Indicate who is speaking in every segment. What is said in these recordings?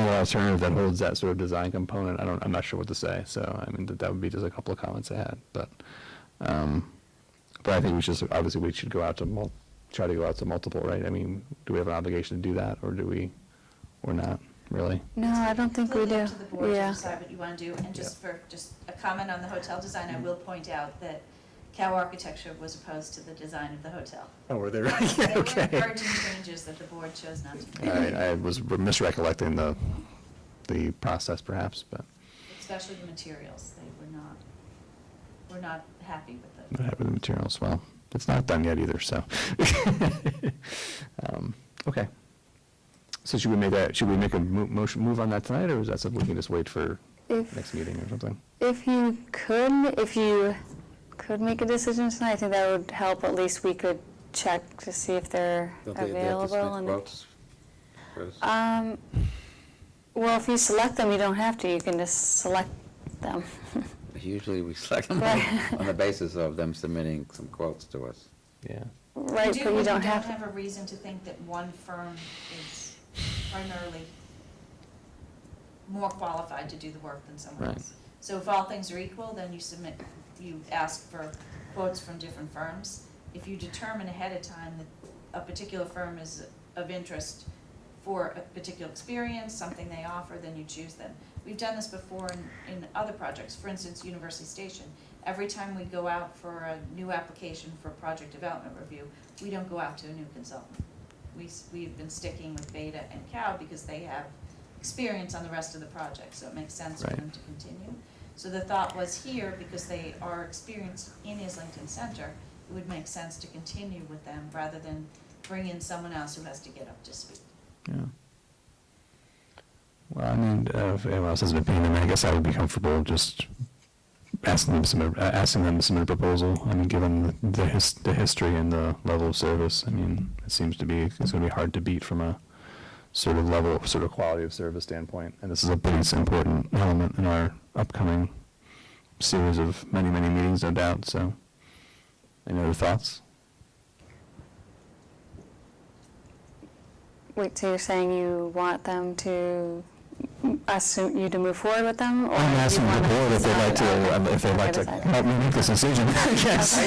Speaker 1: alternative that holds that sort of design component, I don't, I'm not sure what to say. So, I mean, that, that would be just a couple of comments I had, but, um, but I think we should, obviously we should go out to mul, try to go out to multiple, right? I mean, do we have an obligation to do that or do we, or not, really?
Speaker 2: No, I don't think we
Speaker 3: Completely
Speaker 2: do.
Speaker 3: up to the board to
Speaker 2: Yeah.
Speaker 3: decide what you want to do, and just for, just a comment on the hotel design, I will point out that Cow Architecture was opposed to the design of the hotel.
Speaker 4: Oh, were there,
Speaker 3: There were
Speaker 4: okay.
Speaker 3: encouraging changes that the board chose not to
Speaker 1: I,
Speaker 3: make,
Speaker 1: I was misrecollecting the, the process perhaps, but
Speaker 3: especially the materials, they were not, were not happy with
Speaker 1: I'm
Speaker 3: them.
Speaker 1: happy with the materials. Well, it's not done yet either, so. Um, Okay. So should we make a, should we make a mo- motion, move on that tonight, or is that something we can just wait for
Speaker 2: If-
Speaker 1: next meeting or something?
Speaker 2: If you could, if you could make a decision tonight, I think that would help. At least we could check to see if they're
Speaker 5: Don't they- they have to speak
Speaker 2: available. and-
Speaker 5: about this?
Speaker 2: Um, well, if you select them, you don't have to. You can just select them.
Speaker 5: Usually we select them
Speaker 2: Right.
Speaker 5: on on the basis of them submitting some quotes to us.
Speaker 1: Yeah.
Speaker 2: Right,
Speaker 3: do
Speaker 2: but
Speaker 3: when
Speaker 2: you don't have
Speaker 3: You don't
Speaker 2: to.
Speaker 3: have a reason to think that one firm is primarily more qualified to do the work than someone
Speaker 1: Right.
Speaker 3: else. So if all things are equal, then you submit, you ask for quotes from different firms. If you determine ahead of time that a particular firm is of interest for a particular experience, something they offer, then you choose them. We've done this before in, in other projects, for instance, University Station. Every time we go out for a new application for project development review, we don't go out to a new consultant. We, s- we've been sticking with Beta and Cow because they have experience on the rest of the project, so it makes sense for
Speaker 1: Right.
Speaker 3: them to continue. So the thought was here, because they are experienced in Islington Center, it would make sense to continue with them rather than bring in someone else who has to get up to speed.
Speaker 1: Yeah. Well, I mean, uh, if anyone else has an opinion, I mean, I guess I would be comfortable just asking them to submit, uh, asking them to submit a proposal. I mean, given the- the his, the history and the level of service, I mean, it seems to be, it's gonna be hard to beat from a sort of level, sort of quality of service standpoint. And this is a pretty s- important element in our upcoming series of many, many meetings, no doubt, so. Any other thoughts?
Speaker 2: Wait, so you're saying you want them to, us, to- you to move forward with them? or
Speaker 1: I'm
Speaker 2: you
Speaker 1: asking the
Speaker 2: wanna
Speaker 1: board if they'd like
Speaker 2: decide
Speaker 1: to, um,
Speaker 2: on-
Speaker 1: if they'd like to
Speaker 2: Okay, decide.
Speaker 1: help me make this decision, I guess.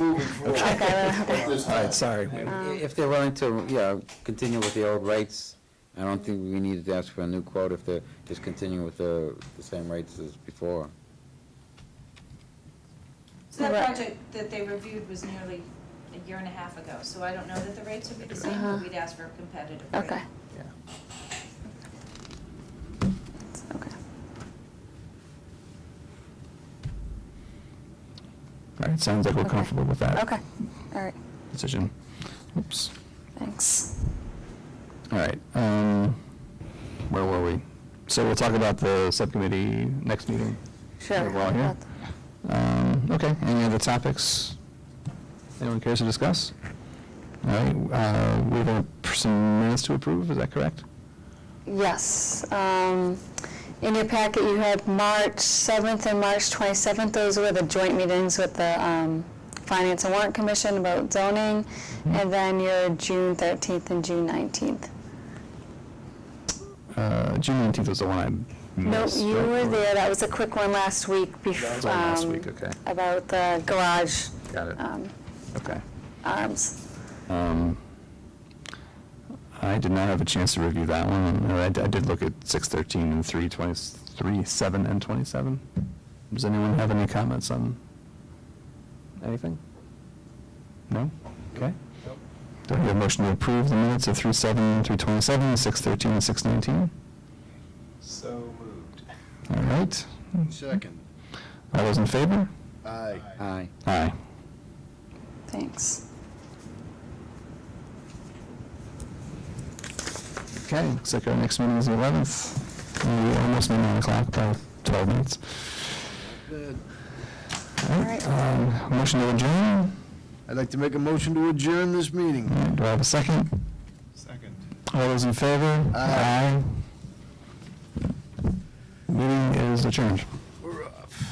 Speaker 2: Okay,
Speaker 4: All right, sorry.
Speaker 2: Um,
Speaker 5: If they're willing to, yeah, continue with the old rates, I don't think we need to ask for a new quote if they're just continuing with the, the same rates as before.
Speaker 3: So that
Speaker 2: Right.
Speaker 3: project that they reviewed was nearly a year and a half ago, so I don't know that the rates would be the same, but
Speaker 2: Uh-huh.
Speaker 3: we'd ask for a competitive rate.
Speaker 2: okay.
Speaker 1: Yeah.
Speaker 2: Okay.
Speaker 1: All right, sounds like we're
Speaker 2: Okay.
Speaker 1: comfortable with that.
Speaker 2: Okay, all right,
Speaker 1: Decision. Oops.
Speaker 2: thanks.
Speaker 1: All right, um, where were we? So we'll talk about the subcommittee next meeting.
Speaker 2: Sure.
Speaker 1: While we're here. Um, okay, any other topics anyone cares to discuss? All right, uh, we have some minutes to approve, is that correct?
Speaker 2: Yes. um, In your packet, you had March 7th and March 27th. Those were the joint meetings with the um, Finance and Warrant Commission about zoning,
Speaker 1: Mm-hmm.
Speaker 2: and then your June 13th and June 19th.
Speaker 1: Uh, June nineteenth was the one I
Speaker 2: No,
Speaker 1: missed.
Speaker 2: you
Speaker 1: right?
Speaker 2: were
Speaker 1: Or-
Speaker 2: there. That was a quick one last week. bef-
Speaker 1: That was on last
Speaker 2: um,
Speaker 1: week, okay.
Speaker 2: About the garage
Speaker 1: Got it.
Speaker 2: um,
Speaker 1: Okay.
Speaker 2: arms.
Speaker 1: Um, I did not have a chance to review that one. uh, I, I did look at six thirteen and three twenty, three, seven and twenty-seven. Does anyone have any comments on anything? No? Okay. Do I hear a motion to approve the minutes of three seven, three twenty-seven, six thirteen, and six nineteen?
Speaker 4: So moved.
Speaker 1: All right.
Speaker 6: Second.
Speaker 1: All those in favor?
Speaker 6: Aye.
Speaker 5: Aye.
Speaker 1: Aye.
Speaker 2: Thanks.
Speaker 1: Okay, looks like our next meeting is the eleventh. We almost made nine o'clock by twelve minutes.
Speaker 6: Good.
Speaker 1: All right, um, motion to adjourn.
Speaker 6: I'd like to make a motion to adjourn this meeting.
Speaker 1: All right, Do I have a second?
Speaker 4: Second.
Speaker 1: All those in favor?
Speaker 6: Aye.
Speaker 1: Aye. Meeting is adjourned.